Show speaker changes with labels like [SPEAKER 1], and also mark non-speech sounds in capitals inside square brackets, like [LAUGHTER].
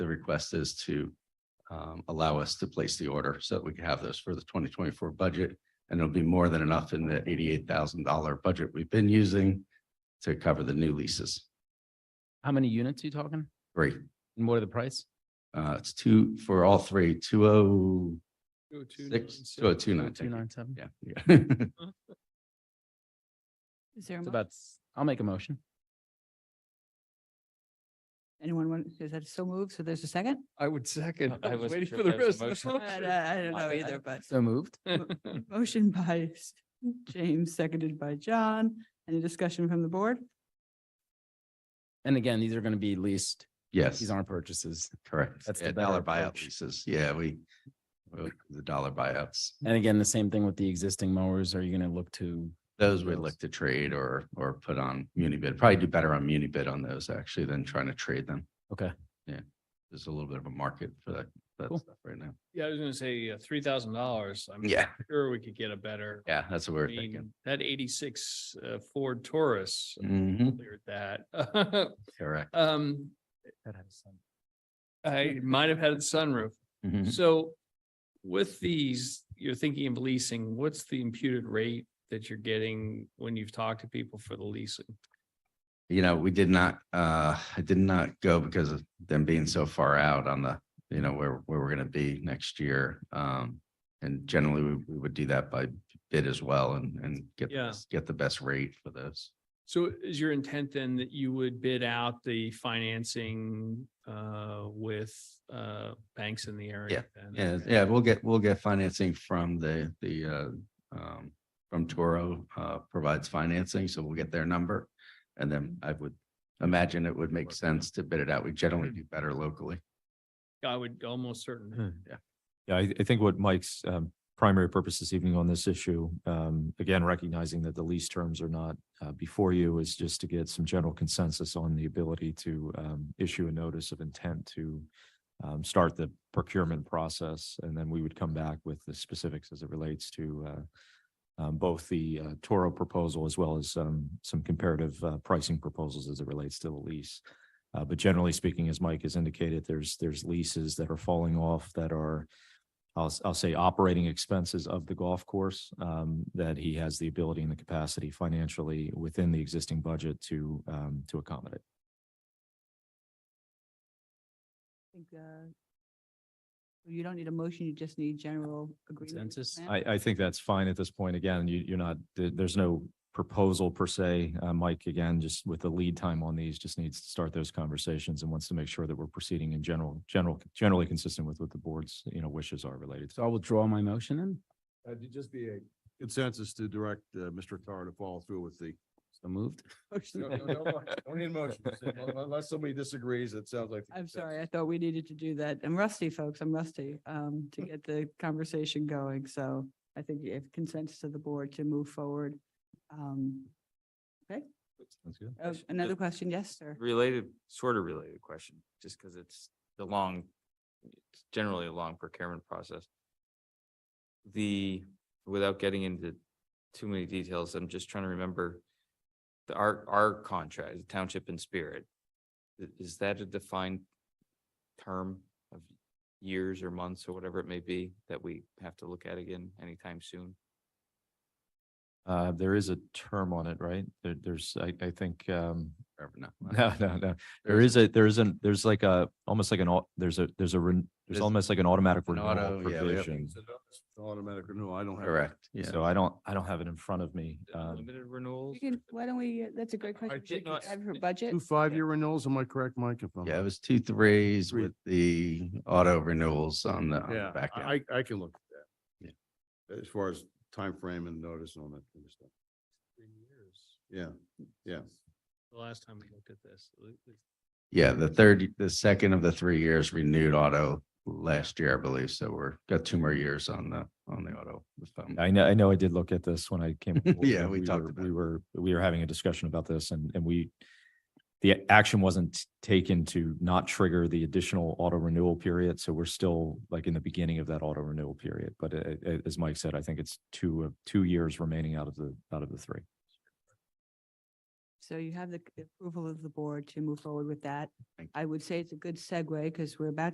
[SPEAKER 1] the request is to um, allow us to place the order so that we can have this for the twenty twenty-four budget. And it'll be more than enough in the eighty-eight thousand dollar budget we've been using to cover the new leases.
[SPEAKER 2] How many units are you talking?
[SPEAKER 1] Great.
[SPEAKER 2] And what are the price?
[SPEAKER 1] Uh, it's two for all three, two oh six, two oh two nine.
[SPEAKER 2] Two nine seven.
[SPEAKER 1] Yeah, yeah. [LAUGHS]
[SPEAKER 3] Is there, a
[SPEAKER 2] It's
[SPEAKER 3] mo-
[SPEAKER 2] about, s- I'll make a motion.
[SPEAKER 3] anyone want, is that so moved? So there's a second?
[SPEAKER 4] I would second.
[SPEAKER 5] I
[SPEAKER 4] I was
[SPEAKER 5] wasn't
[SPEAKER 4] waiting
[SPEAKER 5] sure
[SPEAKER 4] for
[SPEAKER 5] if
[SPEAKER 4] the
[SPEAKER 5] there was
[SPEAKER 4] rest
[SPEAKER 5] a
[SPEAKER 4] of the
[SPEAKER 3] I
[SPEAKER 5] motion.
[SPEAKER 4] motion.
[SPEAKER 3] I don't
[SPEAKER 5] My
[SPEAKER 3] know
[SPEAKER 5] bad.
[SPEAKER 3] either, but
[SPEAKER 2] So [LAUGHS] moved.
[SPEAKER 3] motion by s- James, seconded by John. Any discussion from the board?
[SPEAKER 2] And again, these are going to be leased.
[SPEAKER 1] Yes,
[SPEAKER 2] These aren't purchases.
[SPEAKER 1] correct.
[SPEAKER 2] That's the
[SPEAKER 1] Yeah, Dollar
[SPEAKER 2] better
[SPEAKER 1] buyout
[SPEAKER 2] approach.
[SPEAKER 1] leases. Yeah, we, we look at the dollar buyouts.
[SPEAKER 2] And again, the same thing with the existing mowers. Are you going to look to?
[SPEAKER 1] Those we
[SPEAKER 2] Those.
[SPEAKER 1] look to trade or, or put on muni bid. Probably do better on muni bid on those actually than trying to trade them.
[SPEAKER 2] Okay.
[SPEAKER 1] Yeah. There's a little bit of a market for that, that
[SPEAKER 2] Cool.
[SPEAKER 1] stuff right now.
[SPEAKER 4] Yeah, I was gonna say three thousand dollars. I'm
[SPEAKER 1] Yeah.
[SPEAKER 4] sure we could get a better.
[SPEAKER 1] Yeah, that's what we
[SPEAKER 4] I
[SPEAKER 1] we're thinking.
[SPEAKER 4] mean, that eighty-six uh, Ford Taurus
[SPEAKER 1] Mhm,
[SPEAKER 4] cleared that. [LAUGHS]
[SPEAKER 1] correct.
[SPEAKER 4] Um, I might have had a sunroof.
[SPEAKER 1] Mhm.
[SPEAKER 4] So with these, you're thinking of leasing, what's the imputed rate that you're getting when you've talked to people for the leasing?
[SPEAKER 1] You know, we did not, uh, I did not go because of them being so far out on the, you know, where, where we're gonna be next year. Um, and generally we, we would do that by bid as well and, and get, the
[SPEAKER 4] Yeah.
[SPEAKER 1] best- get the best rate for those.
[SPEAKER 4] So is your intent then that you would bid out the financing uh with uh banks in the area? then?
[SPEAKER 1] Yeah,
[SPEAKER 4] Okay.
[SPEAKER 1] yeah, we'll get, we'll get financing from the, the, uh, um, from Toro, uh, provides financing, so we'll get their number. And then I would imagine it would make sense to bid it out. We generally do better locally.
[SPEAKER 4] I would almost certainly.
[SPEAKER 5] Hmm. Yeah, I, I think what Mike's um, primary purpose this evening on this issue, um, again, recognizing that the lease terms are not uh, before you, is just to get some general consensus on the ability to um, issue a notice of intent to um, start the procurement process, and then we would come back with the specifics as it relates to uh, um, both the uh, Toro proposal as well as um, some comparative uh, pricing proposals as it relates to the lease. Uh, But generally speaking, as Mike has indicated, there's, there's leases that are falling off that are I'll, s- I'll say operating expenses of the golf course, um, that he has the ability and the capacity financially within the existing budget to, um, to accommodate.
[SPEAKER 3] I think, uh, You don't need a motion, you just need general agreement. with
[SPEAKER 2] Consensus?
[SPEAKER 3] the plan.
[SPEAKER 5] I, I think that's fine at this point. Again, you, you're not, there, there's no proposal per se. Uh, Mike, again, just with the lead time on these, just needs to start those conversations and wants to make sure that we're proceeding in general, general, generally consistent with what the board's, you know, wishes are related. to.
[SPEAKER 2] So I will draw my motion then.
[SPEAKER 6] Uh, It'd just be a consensus to direct uh, Mr. Carr to follow through with the.
[SPEAKER 2] So moved.
[SPEAKER 6] No, no, [LAUGHS] no, no, Don't need a motion. Unless somebody disagrees, it sounds like. the
[SPEAKER 3] I'm sorry, I
[SPEAKER 6] consensus.
[SPEAKER 3] thought we needed to do that. I'm rusty, folks, I'm rusty, um, to get the conversation going, so I think if consensus of the board to move forward. Um,
[SPEAKER 5] Sounds good.
[SPEAKER 3] oh,
[SPEAKER 7] Yes,
[SPEAKER 3] another
[SPEAKER 7] yes.
[SPEAKER 3] question, yes, sir?
[SPEAKER 7] Related, sort of related question, just because it's the long, it's generally a long procurement process. The, without getting into too many details, I'm just trying to remember the, our, our contract, the Township and Spirit. i- Is that a defined term of years or months or whatever it may be that we have to look at again anytime soon?
[SPEAKER 5] Uh, there is a term on it, right? There, there's, I, I think, um, [LAUGHS]
[SPEAKER 1] Or no,
[SPEAKER 5] no, no, no. There is a, there isn't, there's like a, almost like an, au- there's a, there's a, ren- there's
[SPEAKER 1] There's
[SPEAKER 5] almost like an automatic
[SPEAKER 1] an auto,
[SPEAKER 5] renewal
[SPEAKER 1] yeah, we have-
[SPEAKER 5] provision.
[SPEAKER 6] It's an Automatic renewal. I don't have.
[SPEAKER 1] Correct, yeah.
[SPEAKER 5] So I don't, I don't have it in front of me. Um,
[SPEAKER 7] Limited renewals?
[SPEAKER 3] We can, why don't we, uh, that's a great question.
[SPEAKER 7] did
[SPEAKER 3] We can
[SPEAKER 7] not-
[SPEAKER 3] Have her budget.
[SPEAKER 6] Two five-year renewals, am I correct, Mike? If I'm-
[SPEAKER 1] Yeah, it was two threes
[SPEAKER 6] Three.
[SPEAKER 1] with the auto renewals on the, on the
[SPEAKER 6] Yeah,
[SPEAKER 1] back end.
[SPEAKER 6] I, I can look at that. Yeah. As far as time frame and notice and all that kind of stuff.
[SPEAKER 4] Three years.
[SPEAKER 6] Yeah, yeah.
[SPEAKER 4] The last time we looked at this. it- it-
[SPEAKER 1] Yeah, the third, the second of the three years renewed auto last year, I believe. So we're got two more years on the, on the auto. if I'm-
[SPEAKER 5] I know, I know I did look at this when I
[SPEAKER 1] [LAUGHS]
[SPEAKER 5] came. well,
[SPEAKER 1] Um, Yeah,
[SPEAKER 5] when
[SPEAKER 1] we talked
[SPEAKER 5] were-
[SPEAKER 1] about
[SPEAKER 5] We
[SPEAKER 1] it.
[SPEAKER 5] were, we were having a discussion about this and, and we, the action wasn't taken to not trigger the additional auto renewal period. So we're still like in the beginning of that auto renewal period. But uh, uh, as Mike said, I think it's two, of two years remaining out of the, out of the three.
[SPEAKER 3] So you have the c- approval of the board to move forward with that.
[SPEAKER 1] Thank you.
[SPEAKER 3] I would say it's a good segue because we're about